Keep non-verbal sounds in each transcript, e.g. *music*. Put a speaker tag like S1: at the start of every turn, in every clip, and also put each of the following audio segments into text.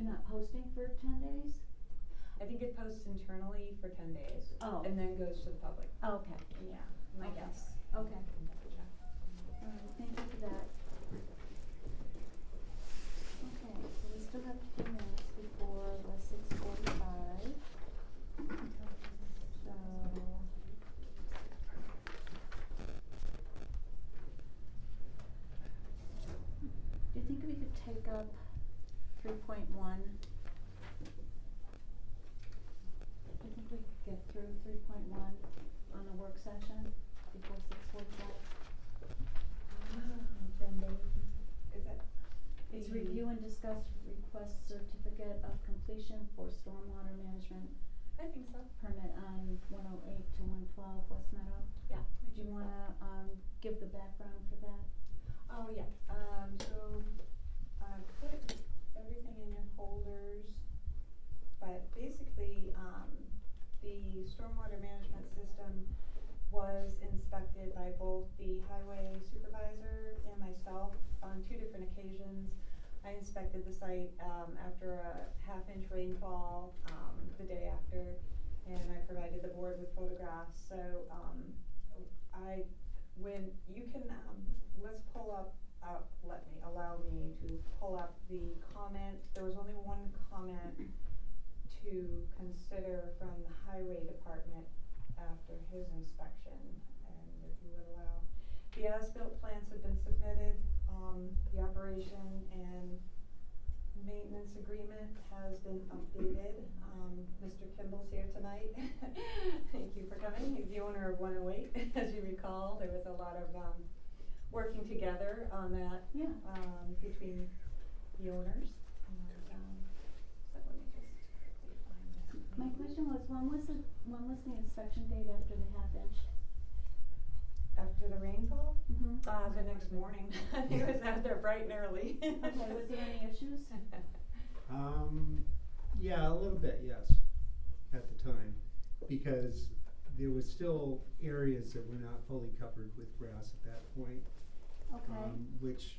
S1: uh,
S2: posting for ten days?
S1: I think it posts internally for ten days.
S2: Oh.
S1: And then goes to the public.
S2: Okay, yeah,
S1: My
S2: Okay.
S1: guess.
S2: Okay.
S1: I can double check.
S2: all right, thank you for that. Okay, so we still have a few minutes before the six forty-five. So. Do you think we could take up three point one? Do you think we could get through three point one on a work session before six forty-five?
S1: Ah, Is that?
S2: It's
S1: Mhm.
S2: review and discuss request certificate of completion for stormwater management
S1: I think so.
S2: permit on one oh eight to one twelve West Meadow.
S1: Yeah.
S2: Do you wanna, um, give the background for that?
S1: Oh, yeah, um, so, I put everything in your folders, but basically, um, the stormwater management system was inspected by both the highway supervisor and myself on two different occasions. I inspected the site, um, after a half-inch rainfall, um, the day after, and I provided the board with photographs, so, um, I when you can, um, let's pull up, uh, let me, allow me to pull up the comment, there was only one comment to consider from the highway department after his inspection, and if you would allow. The as-built plans have been submitted, um, the operation and maintenance agreement has been updated. Um, Mr. Kimball's here tonight. *laughs* Thank you for coming. He's the owner of one oh eight, *laughs* as you recall. There was a lot of, um, working together on that,
S2: Yeah.
S1: um, between the owners. And, um, so let me just quickly find this.
S2: My question was, when was the, when was the inspection date after the half inch?
S1: After the rainfall?
S2: Mm-hmm.
S1: Uh, the next morning. *laughs* I think it was out there bright and early. *laughs*
S2: Okay, was there any issues?
S3: Um, yeah, a little bit, yes, at the time, because there was still areas that were not fully covered with grass at that point,
S2: Okay.
S3: um, which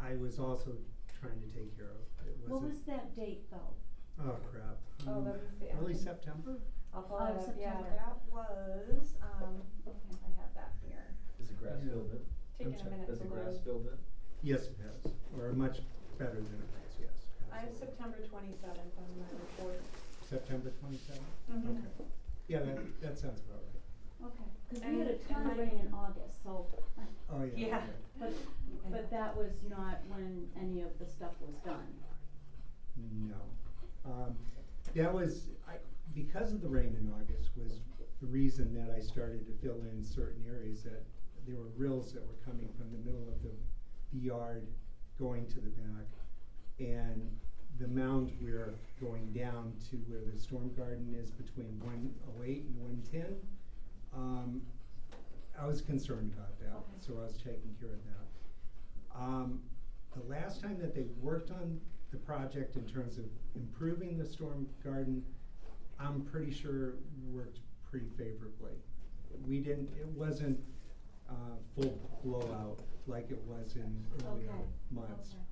S3: I was also trying to take care of. It
S2: What
S3: wasn't-
S2: was that date though?
S3: Oh crap.
S1: Oh, that
S3: Um,
S1: was the Hmm.
S3: early
S1: end.
S3: September.
S1: I'll pull
S2: Oh,
S1: it up. Yeah,
S2: September.
S1: that was, um,
S2: Okay.
S1: I have that here.
S4: Is the grass
S3: Yeah.
S4: filled in?
S3: I'm
S1: Taking a
S3: sorry,
S1: minute to
S4: Has the
S1: load.
S4: grass filled in?
S3: Yes, it has, or much better than it was. Yes.
S1: I have
S3: absolutely.
S1: September twenty-seventh on my report.
S3: September twenty-seventh.
S1: Mhm.
S3: Okay. Yeah, that that sounds about right.
S2: Okay, cause we
S1: And-
S2: had a
S1: and
S2: ton of
S1: my-
S2: rain in August, so,
S3: Oh yeah.
S1: Yeah.
S3: okay.
S2: but, but that was not when any of the stuff was done.
S3: No. Um, that was, I, because of the rain in August was the reason that I started to fill in certain areas that there were rills that were coming from the middle of the, the yard going to the back. And the mound we're going down to where the storm garden is between one oh eight and one ten. Um, I was concerned about that,
S2: Okay.
S3: so I was taking care of that. Um, the last time that they worked on the project in terms of improving the storm garden, I'm pretty sure worked pretty favorably. We didn't, it wasn't, uh, full blowout like it was in earlier
S2: Okay,
S3: months.
S2: okay.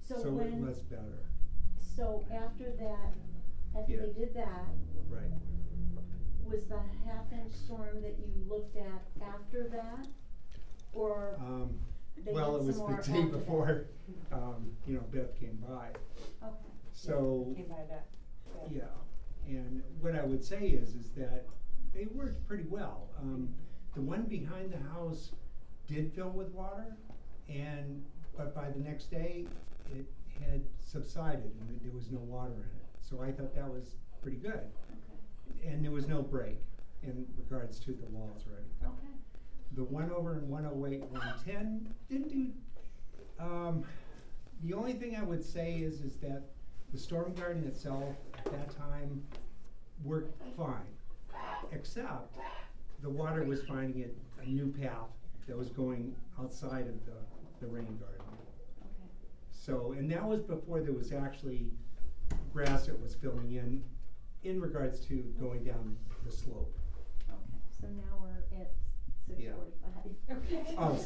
S2: So
S3: So it
S2: when-
S3: was better,
S2: So after that, after they
S3: Yeah.
S2: did that,
S3: right.
S2: was the half inch storm that you looked at after that? Or,
S3: Um,
S2: They did
S3: well, it
S2: some
S3: was
S2: more
S3: the
S2: after
S3: day
S2: that.
S3: before, um, you know, Beth came by,
S2: okay,
S3: so.
S1: Came by that.
S3: Yeah, and what I would say is, is that they worked pretty well. Um, the one behind the house did fill with water, and, but by the next day, it had subsided and there was no water in it. So I thought that was pretty good,
S2: okay,
S3: and there was no break in regards to the walls or anything.
S2: okay.
S3: The one over in one oh eight, one ten, didn't do, um, the only thing I would say is, is that the storm garden itself at that time worked fine. Except the water was finding it, a new path that was going outside of the, the rain garden.
S2: Okay,
S3: So, and that was before there was actually grass that was filling in, in regards to going down the slope.
S2: okay, so now we're at six
S3: Yeah.
S2: forty-five. *laughs*
S1: Okay.
S3: Oh,